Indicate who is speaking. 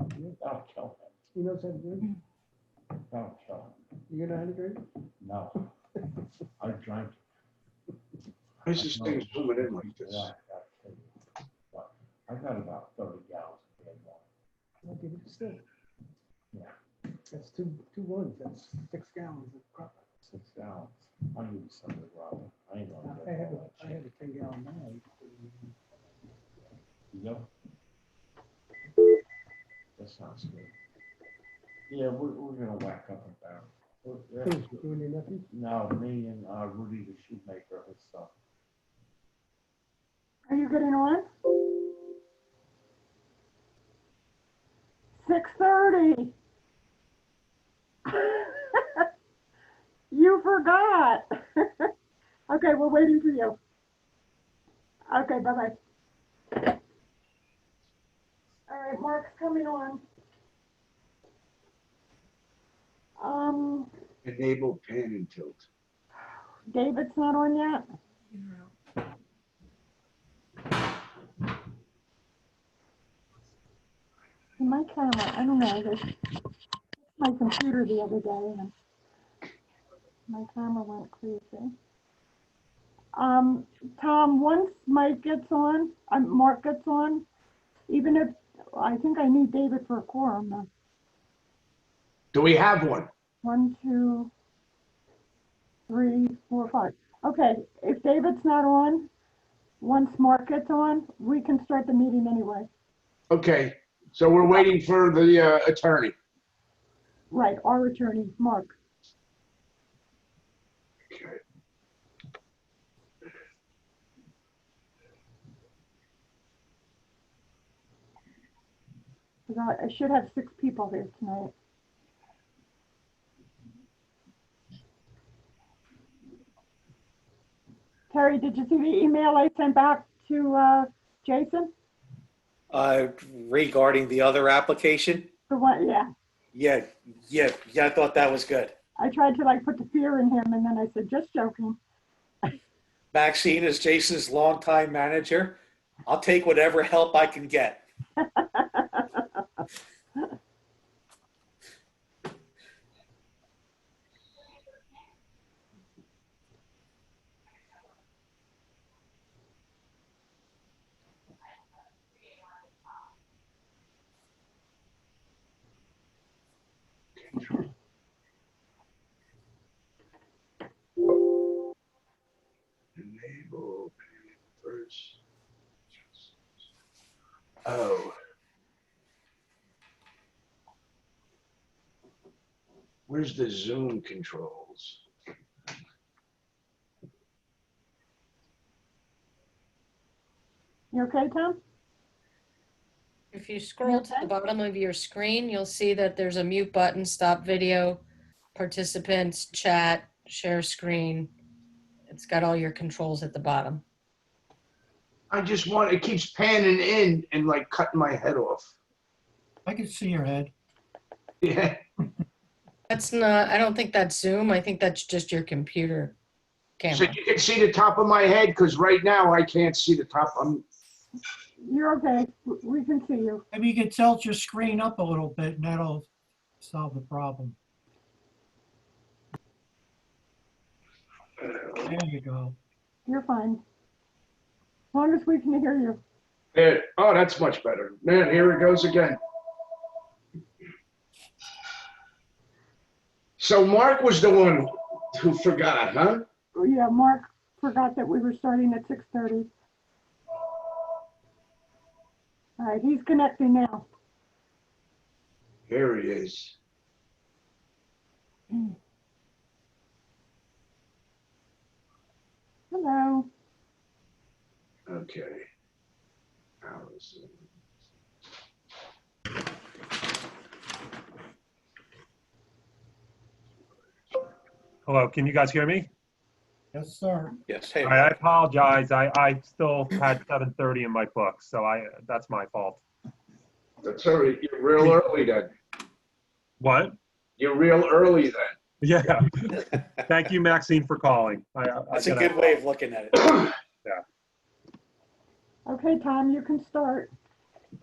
Speaker 1: I'll kill
Speaker 2: You know something,
Speaker 1: him. I'll kill
Speaker 2: you're not a great.
Speaker 1: him. No. I drank.
Speaker 3: Why is this thing zooming in like this?
Speaker 1: Yeah, I got to tell you. But I got about thirty gallons of red wine.
Speaker 2: I'll give it a still.
Speaker 1: Yeah.
Speaker 2: That's two, two ones, that's six gallons of crop.
Speaker 1: six gallons. I need some of the raw. I ain't gonna
Speaker 2: I
Speaker 1: get
Speaker 2: had,
Speaker 1: all
Speaker 2: a- I
Speaker 1: that shit.
Speaker 2: had a ten gallon now.
Speaker 1: You know? That sounds good. Yeah, we're, we're gonna whack up a barrel. We're- we're-
Speaker 2: You and your nephew?
Speaker 1: No, me and uh, Rudy the shoemaker and stuff.
Speaker 4: Are you getting on? Six thirty. You forgot. Okay, we're waiting for you. Okay, bye-bye. All right, Mark's coming on. Um,
Speaker 3: Enable pan and tilt.
Speaker 4: David's not on yet? See, My camera, I don't know, this, my computer the other day, and my camera went crazy. Um, Tom, once Mike gets on, um, Mark gets on, even if, I think I need David for a quorum, though.
Speaker 3: Do we have one?
Speaker 4: One, two, three, four, five. Okay, if David's not on, once Mark gets on, we can start the meeting anyway.
Speaker 3: Okay, so we're waiting for the uh, attorney.
Speaker 4: Right, our attorney, Mark.
Speaker 3: Okay.
Speaker 4: Forgot, I should have six people here tonight. Terry, did you see the email I sent back to, uh, Jason?
Speaker 5: Uh, Regarding the other application?
Speaker 4: The one, yeah.
Speaker 5: Yeah, yeah, yeah, I thought that was good.
Speaker 4: I tried to like put the fear in him and then I said, just joking.
Speaker 5: Maxine is Jason's longtime manager. I'll take whatever help I can get.
Speaker 3: Enable pan first. Oh. Where's the zoom controls?
Speaker 4: You okay, Tom?
Speaker 6: If you scroll to
Speaker 4: okay?
Speaker 6: the bottom of your screen, you'll see that there's a mute button, stop video, participants, chat, share screen. It's got all your controls at the bottom.
Speaker 3: I just want, it keeps panning in and like cutting my head off.
Speaker 7: I can see your head.
Speaker 3: Yeah,
Speaker 6: That's not, I don't think that's Zoom. I think that's just your computer
Speaker 3: so
Speaker 6: camera.
Speaker 3: you can see the top of my head because right now I can't see the top. I'm,
Speaker 4: You're okay. W- We can see you.
Speaker 7: Maybe you could tilt your screen up a little bit and that'll solve the problem. There you go.
Speaker 4: You're fine. As long as we can hear you.
Speaker 3: there, oh, that's much better. Man, here it goes again. So Mark was the one who forgot, huh?
Speaker 4: Oh, Yeah, Mark forgot that we were starting at six thirty. All right, he's connecting now.
Speaker 3: Here he is.
Speaker 4: Hello.
Speaker 3: Okay. Allison.
Speaker 8: Hello, can you guys hear me?
Speaker 7: Yes, sir.
Speaker 5: Yes. hey,
Speaker 8: All right, I apologize. I, I still had 7:30 in my book, so I, that's my fault.
Speaker 3: That's all right. You're real early then.
Speaker 8: What?
Speaker 3: You're real early then.
Speaker 8: Yeah. Thank you, Maxine, for calling. I- I- I
Speaker 5: That's a
Speaker 8: gotta-
Speaker 5: good way of looking at it.
Speaker 4: Okay, Tom, you can start.